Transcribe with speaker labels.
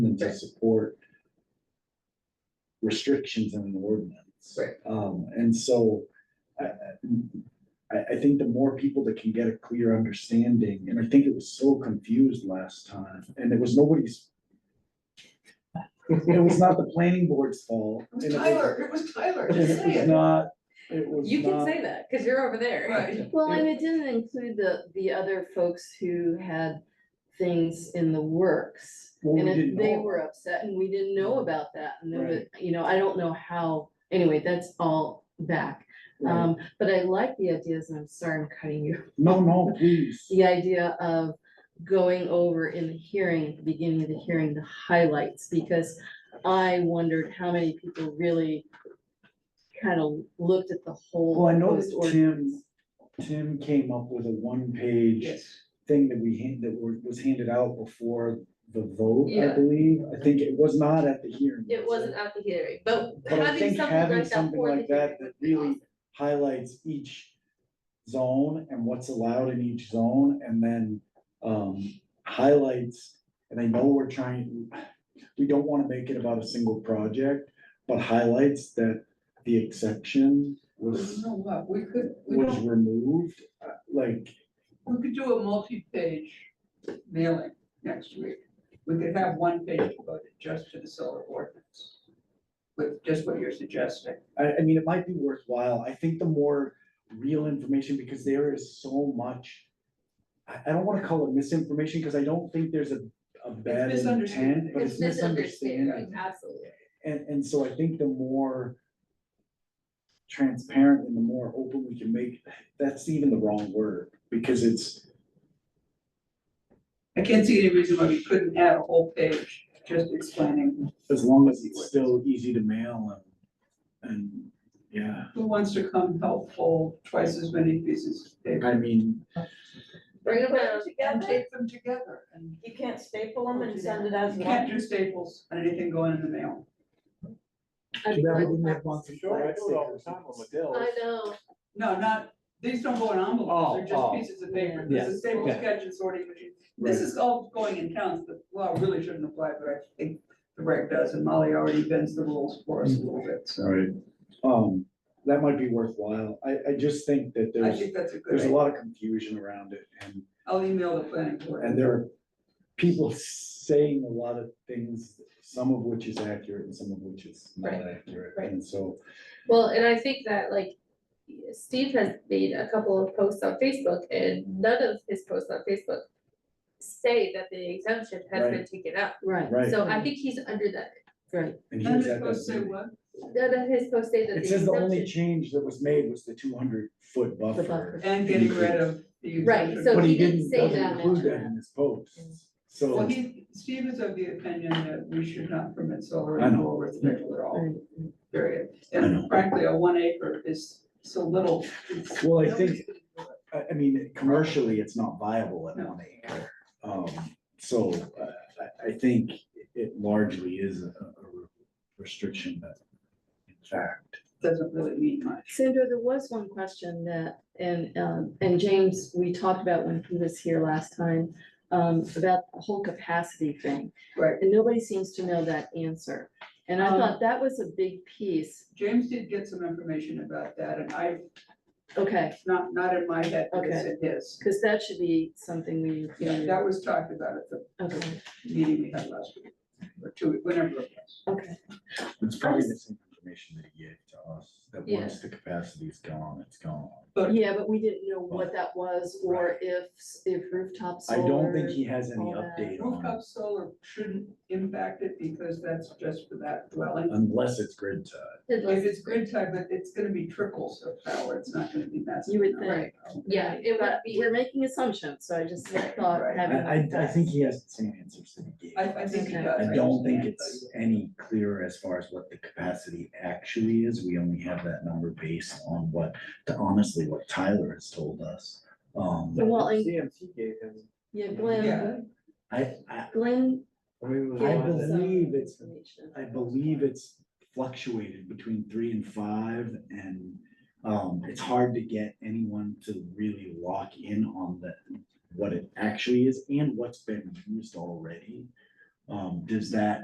Speaker 1: intended to support restrictions in an ordinance.
Speaker 2: Right.
Speaker 1: Um, and so I, I- I, I think the more people that can get a clear understanding, and I think it was so confused last time, and it was nobody's. It was not the planning board's fault.
Speaker 2: It was
Speaker 1: and it was-
Speaker 2: Tyler, it was Tyler,
Speaker 1: and
Speaker 2: just
Speaker 1: It was
Speaker 2: saying.
Speaker 1: not, it was
Speaker 3: You can
Speaker 1: not-
Speaker 3: say that, cause you're over there.
Speaker 2: Right.
Speaker 4: Well, and it didn't include the, the other folks who had things in the works.
Speaker 1: Well, Oh, we
Speaker 4: And
Speaker 1: didn't
Speaker 4: if they
Speaker 1: know.
Speaker 4: were upset and we didn't know about that and there was, you know, I don't know how, anyway, that's all back.
Speaker 1: Right.
Speaker 4: Um, but I like the ideas and I'm sorry I'm cutting you.
Speaker 1: No, no, please.
Speaker 4: The idea of going over in the hearing, the beginning of the hearing, the highlights, because I wondered how many people really kind of looked at the whole.
Speaker 1: Well, I noticed
Speaker 4: proposed ordinance.
Speaker 1: Tim, Tim came up with a one-page
Speaker 2: Yes.
Speaker 1: thing that we hand, that were- was handed out before the vote, I
Speaker 3: Yeah.
Speaker 1: believe. I think it was not at the hearing.
Speaker 3: It
Speaker 1: was
Speaker 3: wasn't at the hearing, but
Speaker 1: But I
Speaker 3: having
Speaker 1: think
Speaker 3: something
Speaker 1: having
Speaker 3: like that
Speaker 1: something
Speaker 3: for the
Speaker 1: like
Speaker 3: hearing
Speaker 1: that that
Speaker 3: would be
Speaker 1: really
Speaker 3: awesome.
Speaker 1: highlights each zone and what's allowed in each zone and then um highlights, and I know we're trying, we don't wanna make it about a single project, but highlights that the exception
Speaker 2: You
Speaker 1: was
Speaker 2: know what, we could,
Speaker 3: Mm-hmm.
Speaker 2: we
Speaker 1: was
Speaker 2: don't,
Speaker 1: removed, uh, like,
Speaker 2: we could do a multi-page mailing next week. We could have one page devoted just to the solar ordinance. With just what you're suggesting.
Speaker 1: I, I mean, it might be worthwhile. I think the more real information, because there is so much. I, I don't wanna call it misinformation, because I don't think there's a, a bad intent,
Speaker 2: misunderstanding.
Speaker 1: but it's misunderstanding.
Speaker 3: misunderstanding, Absolutely.
Speaker 1: And, and so I think the more transparent and the more open we can make, that's even the wrong word, because it's,
Speaker 2: I can't see any reason why we couldn't add a whole page just explaining
Speaker 1: as long as it's still easy to mail and, and, yeah.
Speaker 2: who wants to come help fold twice as many pieces of paper.
Speaker 1: I mean,
Speaker 3: Bring it
Speaker 5: Put it
Speaker 3: around.
Speaker 2: And
Speaker 5: together,
Speaker 2: take them together and
Speaker 5: you can't staple them and send it as
Speaker 2: you can't
Speaker 5: one.
Speaker 2: do staples on anything going in the mail.
Speaker 4: I'd be
Speaker 1: Should
Speaker 4: glad to
Speaker 1: everything have
Speaker 4: practice.
Speaker 1: one-
Speaker 6: Sure, I do it all the time on Modell's.
Speaker 3: I know,
Speaker 2: No, not, these don't go in
Speaker 6: Oh,
Speaker 2: envelopes, they're
Speaker 6: oh.
Speaker 2: just pieces of paper,
Speaker 6: Yeah.
Speaker 2: this is staple
Speaker 6: Yeah.
Speaker 2: sketch and sorting machine. This is all going in counts, the law really shouldn't apply, but I think the reg does, and Molly already bends the rules for us a
Speaker 1: Mm-hmm.
Speaker 2: little bit, so.
Speaker 1: Right. Um, that might be worthwhile. I, I just think that
Speaker 2: I
Speaker 1: there's,
Speaker 2: think that's a good
Speaker 1: there's a
Speaker 2: idea,
Speaker 1: lot of confusion around it and,
Speaker 2: I'll email the planning board.
Speaker 1: and there are people saying a lot of things, some of which is accurate and some of which is not
Speaker 3: Right,
Speaker 1: accurate.
Speaker 3: right.
Speaker 1: And so,
Speaker 3: well, and I think that like Steve has made a couple of posts on Facebook and none of his posts on Facebook say that the exemption has been taken out.
Speaker 4: Right.
Speaker 1: right,
Speaker 3: So I think he's under that,
Speaker 4: Right,
Speaker 1: and
Speaker 2: None
Speaker 1: here's
Speaker 2: of
Speaker 1: that.
Speaker 2: those say what?
Speaker 3: none of his posts say that the
Speaker 1: It says the only
Speaker 3: exemption.
Speaker 1: change that was made was the two hundred foot buffer.
Speaker 4: buffer.
Speaker 2: And
Speaker 1: Mm-hmm.
Speaker 2: getting rid of the.
Speaker 3: Right,
Speaker 2: exemption.
Speaker 3: so
Speaker 1: But he
Speaker 3: he didn't
Speaker 1: didn't,
Speaker 3: say
Speaker 1: doesn't
Speaker 3: that.
Speaker 1: include that in his post,
Speaker 2: Well,
Speaker 1: so,
Speaker 2: he, Steve is of the opinion that we should not permit solar
Speaker 1: I know.
Speaker 2: and or residential
Speaker 1: Oh.
Speaker 2: at all,
Speaker 4: right.
Speaker 2: period.
Speaker 1: I know.
Speaker 2: And frankly, a one acre is so little. it's-
Speaker 1: well, I
Speaker 2: nobody's
Speaker 1: think, I, I mean, commercially, it's not viable at one acre. Um, so, uh, I, I think it largely is a, a restriction that, in fact,
Speaker 2: Doesn't really mean much.
Speaker 4: Sandra, there was one question that, and, um, and James, we talked about when he was here last time, um, about the whole capacity thing.
Speaker 2: Right.
Speaker 4: And nobody seems to know that answer. And I
Speaker 3: Uh-huh.
Speaker 2: Um,
Speaker 4: thought that was a big piece.
Speaker 2: James did get some information about that, and I,
Speaker 4: Okay,
Speaker 2: it's not, not in my head, because
Speaker 4: Okay.
Speaker 2: it is.
Speaker 4: because that should be something we,
Speaker 2: Yeah, that was talked about at the
Speaker 4: okay,
Speaker 2: meeting we had last week, or two, whenever it was.
Speaker 4: okay.
Speaker 1: it's probably the same information that he gave to us, that
Speaker 3: Yeah.
Speaker 1: once the capacity's gone, it's gone.
Speaker 2: But-
Speaker 4: Yeah, but we didn't know what that was or if, if rooftop
Speaker 1: Oh. I
Speaker 4: solar.
Speaker 1: don't think he has any
Speaker 4: all that.
Speaker 1: update on it,
Speaker 2: Rooftop solar shouldn't impact it, because that's just for that dwelling.
Speaker 1: unless it's grid tied.
Speaker 2: If it's grid tied, but it's gonna be trickles of power, it's not gonna be massive.
Speaker 4: You would
Speaker 2: amounts of power.
Speaker 3: Yeah, it would
Speaker 4: But
Speaker 3: be.
Speaker 4: we're making assumptions, so I just
Speaker 3: Right,
Speaker 4: thought
Speaker 2: right.
Speaker 4: having.
Speaker 1: I, I, I
Speaker 4: that-
Speaker 1: think he has the same answers that he gave.
Speaker 2: I, I think it
Speaker 4: Okay.
Speaker 2: does.
Speaker 1: I don't
Speaker 2: just
Speaker 1: think
Speaker 2: can't
Speaker 1: it's any clearer as far as what the capacity actually is. We only have that number based on what, to honestly, what Tyler has told us. Um,
Speaker 4: Well, I-
Speaker 6: CMT gave him,
Speaker 4: Yeah,
Speaker 2: tell you. Yeah,
Speaker 4: Glenn,
Speaker 1: I, I,
Speaker 4: Glenn
Speaker 6: I mean, it was
Speaker 1: I
Speaker 6: one that-
Speaker 4: gave some
Speaker 1: believe it's-
Speaker 4: information.
Speaker 1: I believe it's fluctuated between three and five and um, it's hard to get anyone to really lock in on the, what it actually is and what's been used already. Um, does that